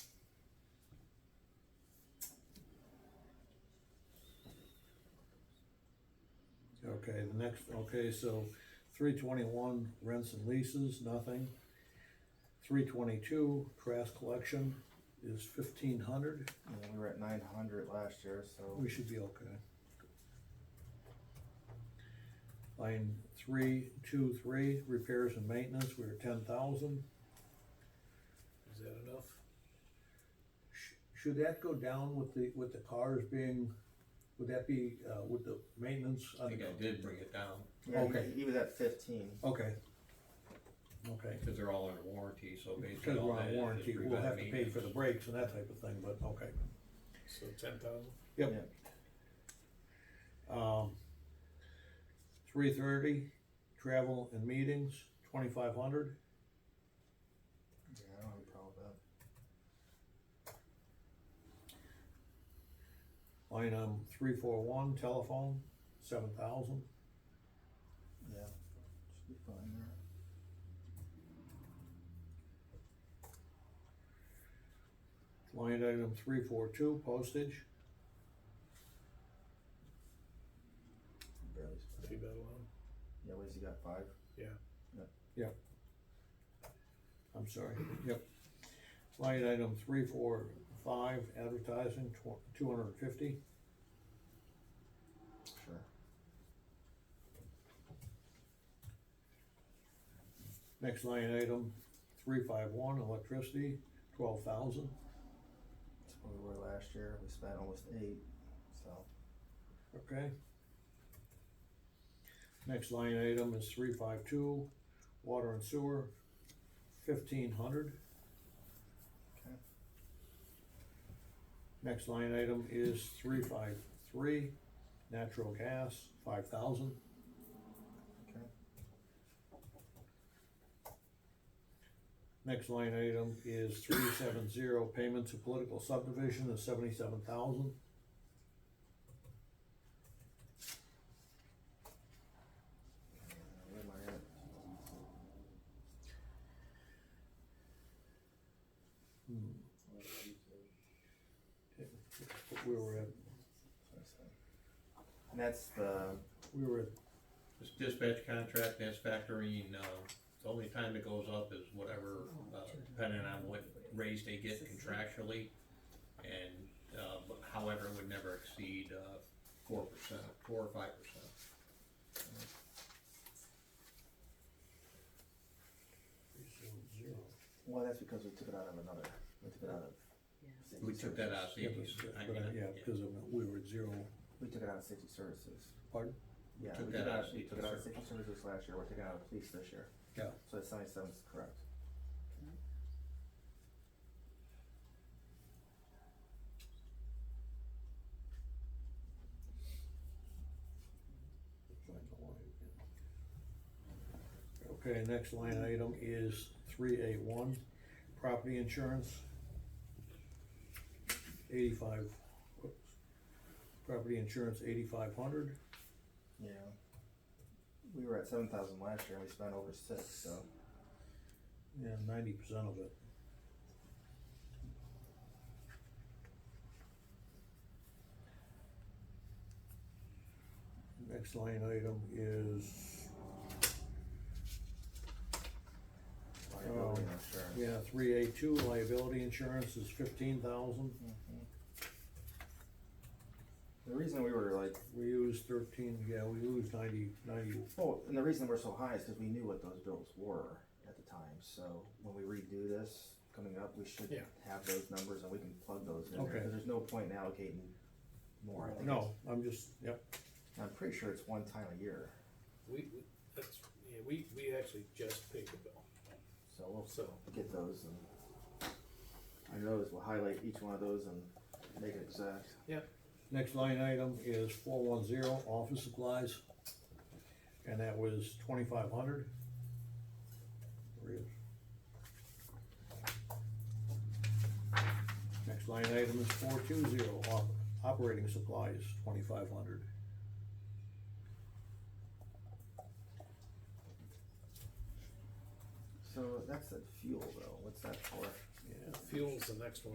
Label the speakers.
Speaker 1: Okay, the next, okay, so three twenty-one, rents and leases, nothing. Three twenty-two, trash collection is fifteen hundred,
Speaker 2: Yeah, we were at nine hundred last year, so
Speaker 1: we should be okay. Line three, two, three, repairs and maintenance, we we're ten thousand.
Speaker 3: Is that enough?
Speaker 1: Should that go down with the, with the cars being, would that be, uh, with the maintenance?
Speaker 3: I think I did bring it down,
Speaker 2: yeah,
Speaker 1: Okay.
Speaker 2: he, he was at fifteen.
Speaker 1: Okay. Okay.
Speaker 3: because they're all under warranty, so basically
Speaker 1: Because
Speaker 3: all
Speaker 1: we're
Speaker 3: that
Speaker 1: on
Speaker 3: is is
Speaker 1: warranty, we'll have
Speaker 3: preventive
Speaker 1: to pay for the
Speaker 3: maintenance.
Speaker 1: brakes and that type of thing, but okay.
Speaker 4: So ten thousand?
Speaker 1: Yep. Um, three thirty, travel and meetings, twenty-five hundred.
Speaker 2: Yeah, I don't have a problem with that.
Speaker 1: Line item three four one, telephone, seven thousand.
Speaker 2: Yeah. Should be fine there.
Speaker 1: Line item three four two, postage,
Speaker 2: Barely. spent.
Speaker 4: Leave that alone.
Speaker 2: Yeah, what has he got, five?
Speaker 1: I'm sorry, yep. Line item three four five, advertising, tw- two hundred and fifty.
Speaker 2: Sure.
Speaker 1: Next line item, three five one, electricity, twelve thousand.
Speaker 2: That's what we were last year, we spent almost eight, so.
Speaker 1: Okay. Next line item is three five two, water and sewer, fifteen hundred.
Speaker 2: Okay.
Speaker 1: Next line item is three five three, natural gas, five thousand.
Speaker 2: Okay.
Speaker 1: Next line item is three seven zero, payment to political subdivision is seventy-seven thousand.
Speaker 2: Uh, Where am I at?
Speaker 1: Hmm, We were at,
Speaker 2: And that's the,
Speaker 1: we were at
Speaker 3: This dispatch contract, that's factoring, uh, the only time it goes up is whatever, uh, depending on what raise they get contractually. And, uh, but however, it would never exceed, uh, four percent, four or five percent.
Speaker 1: three seven zero.
Speaker 2: well, that's because we took it out of another, we took it out of. safety
Speaker 3: We took that out,
Speaker 2: services.
Speaker 3: so you I mean,
Speaker 1: Yeah,
Speaker 3: yeah.
Speaker 1: because of- we were at zero,
Speaker 2: We took it out of safety services.
Speaker 1: pardon?
Speaker 2: Yeah,
Speaker 3: took
Speaker 2: we took
Speaker 3: that
Speaker 2: it
Speaker 3: out
Speaker 2: out,
Speaker 3: of
Speaker 2: we
Speaker 3: safety
Speaker 2: took it out of
Speaker 3: services.
Speaker 2: safety services last year, we're taking it out of police this year,
Speaker 1: Yeah.
Speaker 2: so the seventy-seven is correct.
Speaker 1: Okay, next line item is three eight one, property insurance. Eighty-five, whoops, property insurance eighty-five hundred,
Speaker 2: Yeah. We were at seven thousand last year and we spent over six, so.
Speaker 1: yeah, ninety percent of it. Next line item is,
Speaker 2: Liability insurance.
Speaker 1: Oh. yeah, three eight two, liability insurance is fifteen thousand.
Speaker 2: Mhm. The reason we were like,
Speaker 1: We use thirteen, yeah, we lose ninety, ninety,
Speaker 2: oh, and the reason we're so high is because we knew what those bills were at the time, so when we redo this coming up, we should
Speaker 4: Yeah.
Speaker 2: have those numbers and we can plug those in there,
Speaker 1: Okay.
Speaker 2: 'cause there's no point in allocating more. I think
Speaker 1: no, I'm just, yep,
Speaker 2: it's- I'm pretty sure it's one time a year,
Speaker 4: We, we- that's, yeah, we, we actually just paid the bill,
Speaker 2: so we'll
Speaker 4: so,
Speaker 2: get those and I noticed we'll highlight each one of those and make it exact.
Speaker 1: next line item is four one zero, office supplies. And that was twenty-five hundred. Next line item is four two zero, op- operating supplies, twenty-five hundred.
Speaker 2: So that's a fuel though, what's that for?
Speaker 1: Yeah.
Speaker 4: fuel's the next one.